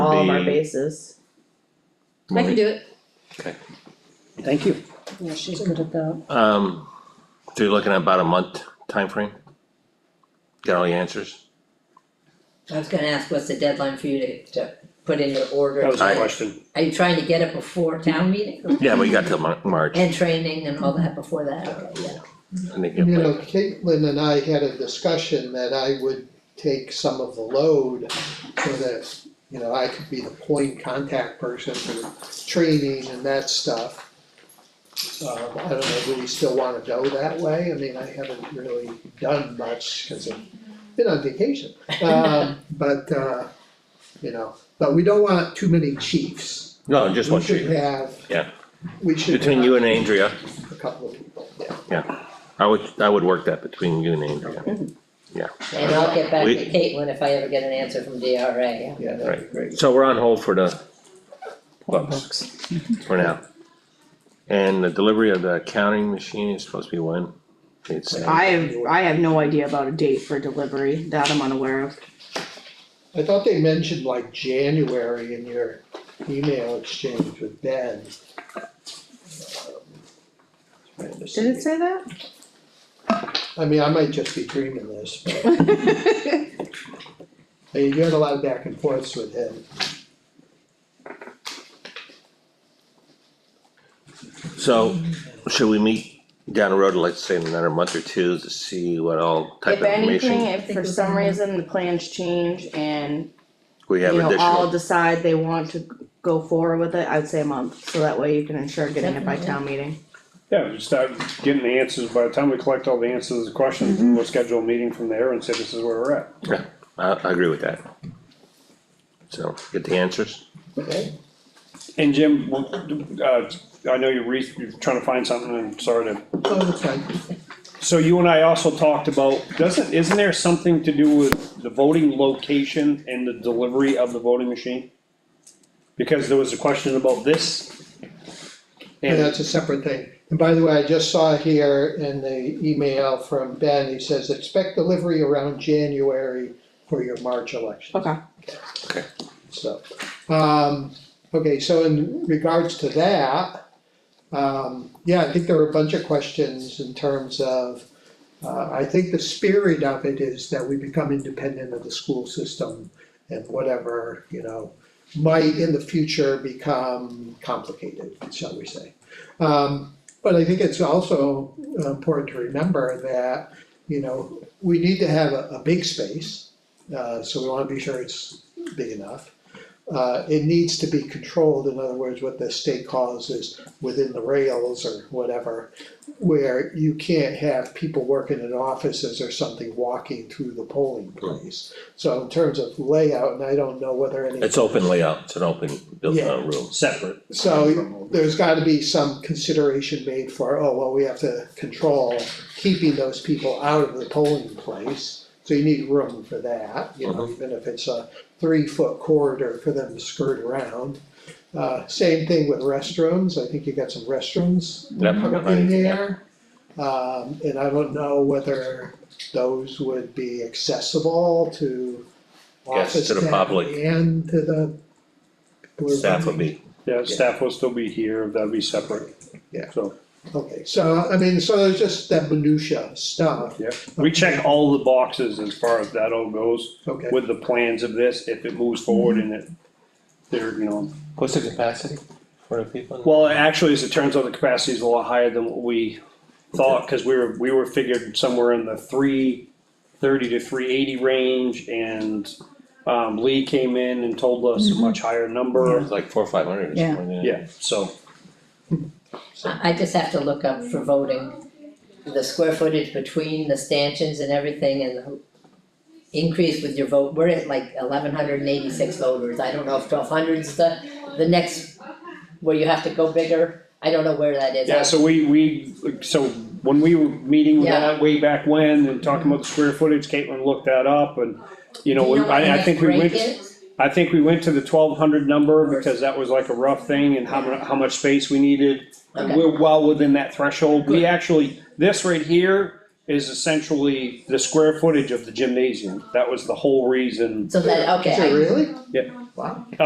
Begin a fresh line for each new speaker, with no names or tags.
all of our
the-
bases.
I can do it.
Thank you.
Yeah, she's good at that.
Um, so you're looking at about a month timeframe? Get all the answers?
I was gonna ask, what's the deadline for you to, to put in your order?
That was my
Are-
question.
Are you trying to get it before
Mm-hmm.
town meeting?
Yeah, but you got till Mar- March,
And training and all that before that, okay, yeah.
I think.
You know, Caitlin and I had a discussion that I would take some of the load so that, you know, I could be the point contact person for training and that stuff. Um, I don't know, do we still wanna go that way? I mean, I haven't really done much because I've been on vacation. Um, but, uh, you know, but we don't want too many chiefs.
No, just one
We should
sheet.
have.
Yeah.
We should.
Between you and
have
Andrea,
A couple of people, yeah.
I would, I would work that between you and Andrea.
And I'll get back
We-
to Caitlin if I ever get an answer from DRA.
Yeah, that'd be great.
So we're on hold for the
Poll
Bucks.
box.
for now. And the delivery of the counting machine is supposed to be when? It's, uh,
I have, I have no idea about a date for delivery, that I'm unaware of.
I thought they mentioned like January in your email exchange with Ben.
Did it say that?
I mean, I might just be dreaming this, but. Hey, You had a lot of back and forths with him.
so should we meet down the road, let's say in another month or two to see what all type
If
of
anything,
information?
if for some reason the plans change and,
We
you
have
know, all
additional,
decide they want to go forward with it, I'd say a month. So that way you can ensure getting it by town meeting.
Yeah, we start getting the answers, by the time we collect all the answers to the questions,
Mm-hmm.
we'll schedule a meeting from there and say this is where we're at.
I, I agree with that. So get the answers.
Okay.
And Jim, we'll- uh, I know you're re, you're trying to find something, and sorry to,
Oh, that's fine.
so you and I also talked about, doesn't, isn't there something to do with the voting location and the delivery of the voting machine? Because there was a question about this.
And
And
that's a separate thing. And by the way, I just saw here in the email from Ben, he says, expect delivery around January for your March election.
Okay.
Okay.
So, um, okay, so in regards to that, um, yeah, I think there were a bunch of questions in terms of, uh, I think the spirit of it is that we become independent of the school system and whatever, you know, might in the future become complicated, shall we say. Um, but I think it's also uh, important to remember that, you know, we need to have a, a big space. Uh, so we wanna be sure it's big enough. Uh, it needs to be controlled, in other words, what the state calls is within the rails or whatever. Where you can't have people working in offices or something walking through the polling place. So in terms of layout, and I don't know whether any.
It's open layout, it's an open built
Yeah.
uh, room.
separate,
So there's gotta be some consideration made for, oh, well, we have to control keeping those people out of the polling place. So you need room for that, you
Uh-huh.
know, even if it's a three foot corridor for them to skirt around. Uh, same thing with restrooms, I think you got some restrooms
Yep,
up
right,
in
yeah.
there. Um, and I don't know whether those would be accessible to
Yes, to
office
the
staff
public.
and to the.
Staff would be,
yeah, staff will still be here, that'd be separate.
Yeah.
So,
Okay, so, I mean, so there's just that minutia stuff,
yeah, we check all the boxes as far as that all goes.
okay.
with the plans of this, if it moves forward and it, there, you know.
what's the capacity for the people?
Well, actually, as it turns out, the capacity is a lot higher than what we thought, cause we were, we were figured somewhere in the three thirty to three eighty range and um, Lee came in and told us a much higher number,
It's like four, or five hundred.
Yeah.
yeah, so.
I, I just have to look up for voting, the square footage between the stanchions and everything and the increase with your vote, we're at like eleven hundred and eighty-six voters, I don't know if twelve hundred's the, the next, where you have to go bigger, I don't know where that is.
Yeah, so we, we, so when we were meeting with
Yeah.
that way back when and talking about the square footage, Caitlin looked that up and, you know,
Do
we-
what the
I, I
next
think we went.
break is?
I think we went to the twelve hundred number because that was like a rough thing and how mu- how much space we needed. And
Okay.
we're well within that threshold. We
Good.
actually, this right here is essentially the square footage of the gymnasium. That was the whole reason.
So that, okay, I-
Is it really?
Yeah.
Wow.